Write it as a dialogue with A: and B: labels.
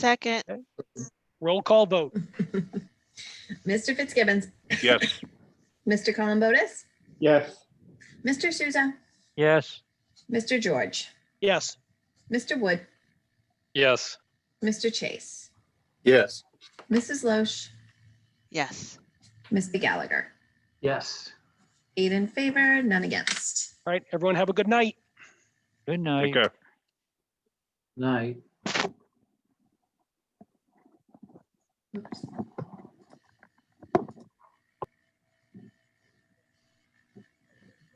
A: Second,
B: Roll call vote.
C: Mr. Fitzgibbons,
D: Yes.
C: Mr. Columbotus,
E: Yes.
C: Mr. Souza,
F: yes,
C: Mr. George,
B: Yes.
C: Mr. Wood,
B: Yes.
C: Mr. Chase,
D: Yes.
C: Mrs. Loesch,
A: yes.
C: Mr. Gallagher.
F: yes.
C: Eight in favor, none against.
B: All right, everyone have a good night.
F: Good night,
D: Okay.
F: night.
C: Oops.